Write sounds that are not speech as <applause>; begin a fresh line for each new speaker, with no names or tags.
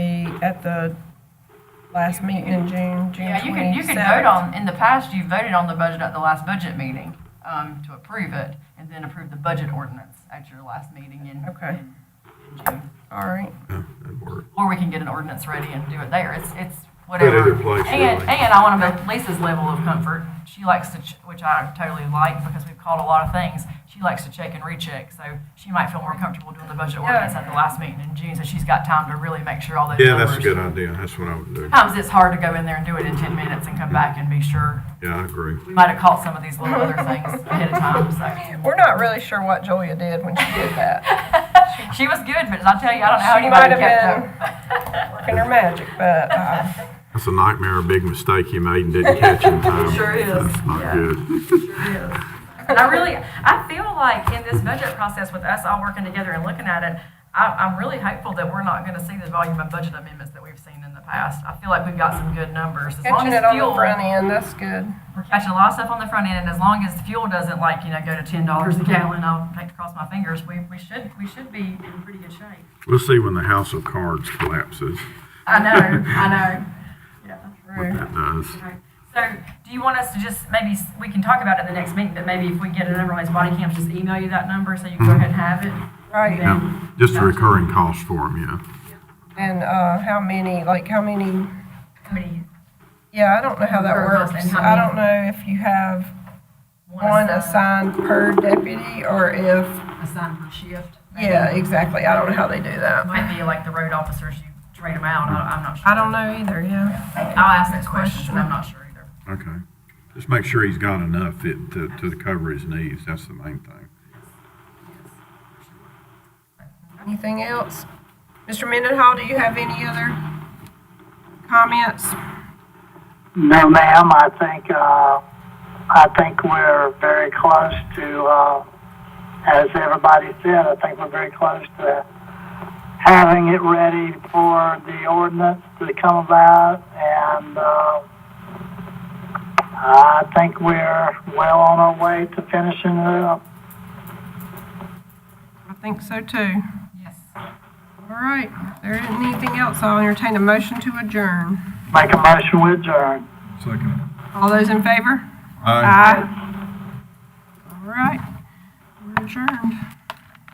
at the last meeting in June, June
Yeah, you can, you can vote
27th.
on, in the past, you voted on the budget at the last budget meeting um, to approve it, and then approve the budget ordinance at your last meeting in,
Okay.
in in June.
All right,
Yeah, that'd work.
Or we can get an ordinance ready and do it there, it's, it's
But either
whatever.
place,
And,
really.
and I want to make Lisa's level of comfort, she likes to, ch- which I totally like, because we've called a lot of things, she likes to check and recheck, so she might feel more comfortable doing the budget ordinance at the last meeting in June, so she's got time to really make sure all those
Yeah, that's a
numbers-
good idea. That's what I would do.
Sometimes it's hard to go in there and do it in 10 minutes and come back and be sure.
Yeah, I agree.
We might have caught some of these little other
<laughs>
things ahead of time. So.
we're not really sure what Julia did when she did
<laughs>
that,
She was good, but I tell you, I don't know how
She
anybody
might have
kept up.
working her magic, but, uh,
That's a nightmare, a big mistake you made and didn't catch in time.
<laughs> Sure is,
That's
yeah.
not good.
And I really, I feel like in this budget process with us all working together and looking at it, I, I'm really hopeful that we're not going to see the volume of budget amendments that we've seen in the past. I feel like we've got some good numbers. As long
catching
as
it on
fuel,
the front end, that's good.
we're catching a lot of stuff on the front end, and as long as fuel doesn't like, you know, go to ten dollars a gallon, I'll take cross my fingers, we, we should, we should be in pretty good shape.
We'll see when the House of Cards collapses,
I know,
<laughs>
I know. Yeah,
what
true.
that does.
Okay. So, do you want us to just, maybe, s- we can talk about it in the next meeting, but maybe if we get a number on his body cams, just email you that number, so you can go ahead and have it?
Right.
And then-
Yeah, just a recurring cost for them, yeah.
And, uh, how many, like, how many,
How many?
yeah, I don't know how that
Per
works.
person, how
I
many?
don't know if you have
One
one
assigned-
assigned per deputy or if,
Assigned per shift? maybe?
yeah, exactly, I don't know how they do that.
Might be like the road officers, you trade them out, I, I'm not sure.
I don't know either, yeah.
I'll ask that question, but I'm not sure either.
Okay. Just make sure he's got enough it- to, to cover his needs. That's the main thing.
Anything else? Mr. Mendenhall, do you have any other comments?
No, ma'am, I think, uh, I think we're very close to, uh, as everybody said, I think we're very close to having it ready for the ordinance to come about, and, uh, I think we're well on our way to finishing it up.
I think so too.
Yes.
All right, if there isn't anything else, I'll entertain a motion to adjourn.
Make a motion we adjourn.
Second.
All those in favor?
Aye.
Aye. All right, we're adjourned.